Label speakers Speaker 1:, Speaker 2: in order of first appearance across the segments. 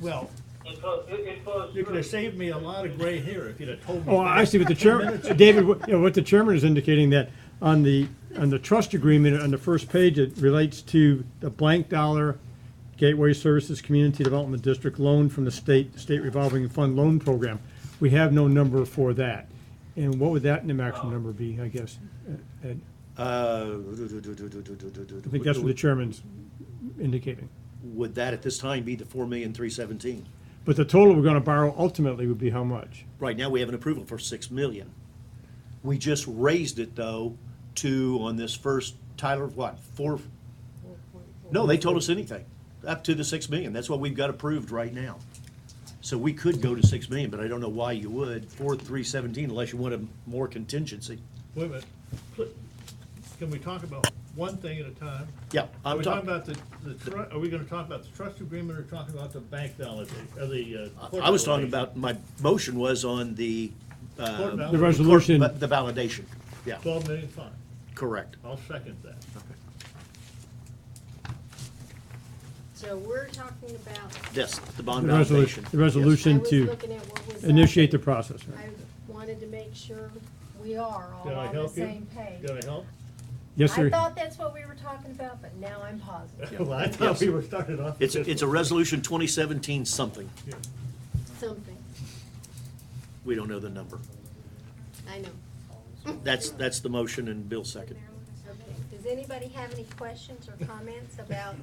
Speaker 1: Well,
Speaker 2: It flows, it it flows
Speaker 1: you could
Speaker 2: through.
Speaker 1: have saved me a lot of gray hair if you'd have told me.
Speaker 3: Oh, I see what the chairman, David, what- you know, what the chairman is indicating that on the, on the trust agreement, on the first page, it relates to the blank dollar Gateway Services Community Development District loan from the state, state revolving fund loan program. We have no number for that. And what would that maximum number be, I guess? Uh, Ed?
Speaker 4: Uh,
Speaker 3: I think that's what the chairman's indicating.
Speaker 4: Would that at this time be the four million, three seventeen?
Speaker 3: But the total we're gonna borrow ultimately would be how much?
Speaker 4: Right now, we have an approval for six million. We just raised it though to, on this first, Tyler, what, four? No, they told us anything, up to the six million. That's what we've got approved right now. So we could go to six million, but I don't know why you would, four, three seventeen, unless you want a more contingency.
Speaker 1: Wait a minute. Pl- Can we talk about one thing at a time?
Speaker 4: Yeah,
Speaker 1: Are
Speaker 4: I'm
Speaker 1: we talking
Speaker 4: talking,
Speaker 1: about the, the, tru- are we gonna talk about the trust agreement or talking about the bank validation, or the? uh, court
Speaker 4: I was talking
Speaker 1: validation?
Speaker 4: about, my motion was on the,
Speaker 1: Court
Speaker 4: uh,
Speaker 3: The
Speaker 1: validation,
Speaker 3: resolution,
Speaker 4: the validation. Yeah,
Speaker 1: Twelve million fine.
Speaker 4: correct.
Speaker 1: I'll second that.
Speaker 5: So we're talking about.
Speaker 4: Yes, the bond
Speaker 3: the resolution,
Speaker 4: validation.
Speaker 3: the
Speaker 4: Yes.
Speaker 3: resolution
Speaker 5: I was
Speaker 3: to
Speaker 5: looking at what was up.
Speaker 3: initiate the process. right?
Speaker 5: I wanted to make sure we are all
Speaker 1: Did I
Speaker 5: on the
Speaker 1: help you?
Speaker 5: same page.
Speaker 1: Did I help?
Speaker 3: Yes,
Speaker 5: I
Speaker 3: sir.
Speaker 5: thought that's what we were talking about, but now I'm positive.
Speaker 1: Well, I thought we were starting off.
Speaker 4: It's,
Speaker 1: with this
Speaker 4: it's a resolution 2017 something.
Speaker 5: Something,
Speaker 4: We don't know the number.
Speaker 5: I know.
Speaker 4: That's, that's the motion and Bill second.
Speaker 5: Okay. Does anybody have any questions or comments about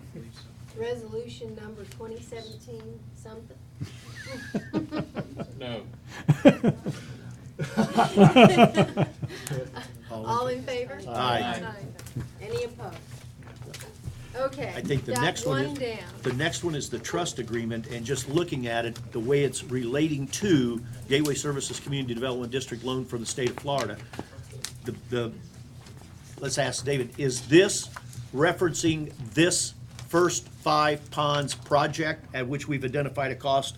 Speaker 5: resolution number twenty seventeen something?
Speaker 6: No.
Speaker 5: All in favor?
Speaker 4: Aye.
Speaker 5: Any opposed? Okay.
Speaker 4: I think the
Speaker 5: got
Speaker 4: next one is.
Speaker 5: One down.
Speaker 4: The next one is the trust agreement, and just looking at it, the way it's relating to Gateway Services Community Development District loan from the state of Florida. The, the, let's ask David, is this referencing this first five ponds project at which we've identified a cost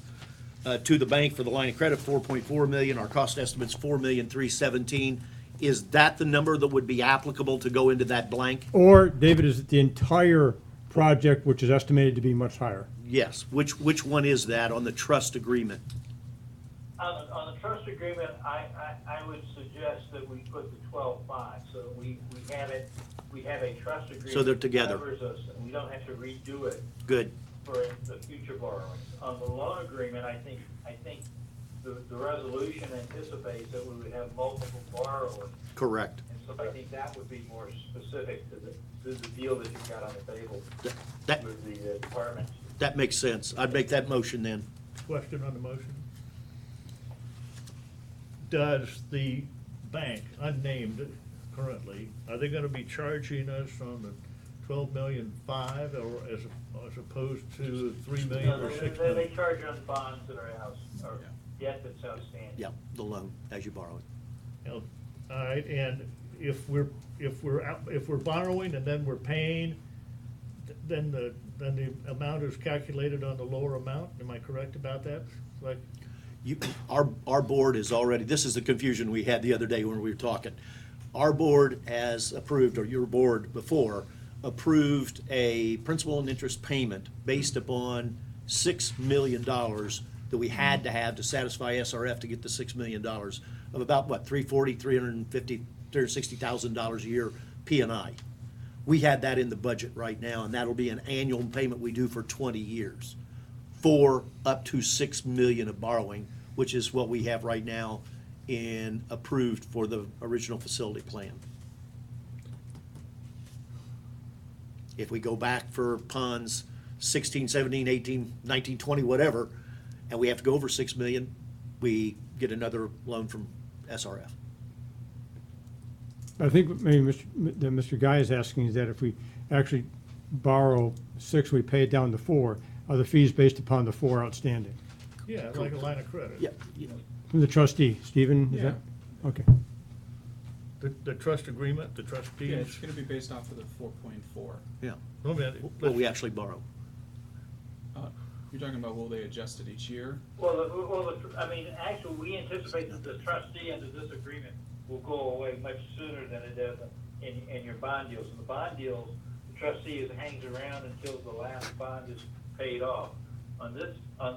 Speaker 4: uh, to the bank for the line of credit, four point four million, our cost estimate's four million, three seventeen? Is that the number that would be applicable to go into that blank?
Speaker 3: Or, David, is it the entire project, which is estimated to be much higher?
Speaker 4: Yes, which, which one is that on the trust agreement?
Speaker 2: On, on the trust agreement, I, I, I would suggest that we put the twelve-five, so that we, we have it, we have a trust agreement.
Speaker 4: they're together.
Speaker 2: that Covers us, and we don't have to redo it
Speaker 4: Good.
Speaker 2: for the future borrowings. On the loan agreement, I think, I think the, the resolution anticipates that we would have multiple borrowers.
Speaker 4: Correct.
Speaker 2: And so I think that would be more specific to the, to the deal that you've got on the table
Speaker 4: That- That,
Speaker 2: with the uh, department.
Speaker 4: that makes sense. I'd make that motion then.
Speaker 1: Question on the motion. Does the bank, unnamed currently, are they gonna be charging us on the twelve million five or as, as opposed to three million
Speaker 2: No,
Speaker 1: or
Speaker 2: they-
Speaker 1: six
Speaker 2: they- They
Speaker 1: million?
Speaker 2: charge on bonds that are out, or debt that's outstanding.
Speaker 4: Yeah, the loan, as you borrow it.
Speaker 1: All right, and if we're, if we're, out if we're borrowing and then we're paying, th- then the, then the amount is calculated on the lower amount, am I correct about that? Like,
Speaker 4: You, our, our board is already, this is the confusion we had the other day when we were talking. Our board has approved, or your board before, approved a principal and interest payment based upon six million dollars that we had to have to satisfy SRF to get the six million dollars of about, what, three forty, three hundred and fifty, three hundred and sixty thousand dollars a year P and I. We had that in the budget right now, and that'll be an annual payment we do for twenty years for up to six million of borrowing, which is what we have right now in approved for the original facility plan. If we go back for ponds 16, 17, 18, 19, 20, whatever, and we have to go over six million, we get another loan from SRF.
Speaker 3: I think maybe Mr. that Mr. Guy is asking is that if we actually borrow six, we pay it down to four, are the fees based upon the four outstanding?
Speaker 1: yeah, like a line of credit.
Speaker 4: Yeah, yeah,
Speaker 3: From the trustee, Stephen, is that? Okay.
Speaker 1: The, the trust agreement, the trustees.
Speaker 6: Yeah, it's gonna be based off of the four point four.
Speaker 4: yeah,
Speaker 1: Wait a minute,
Speaker 4: what we actually borrow.
Speaker 6: Uh, You're talking about will they adjust it each year?
Speaker 2: Well, the, well, the, I mean, actually, we anticipate that the trustee under this agreement will go away much sooner than it does in, in your bond deals. In the bond deals, the trustee is, hangs around until the last bond is paid off. On this, on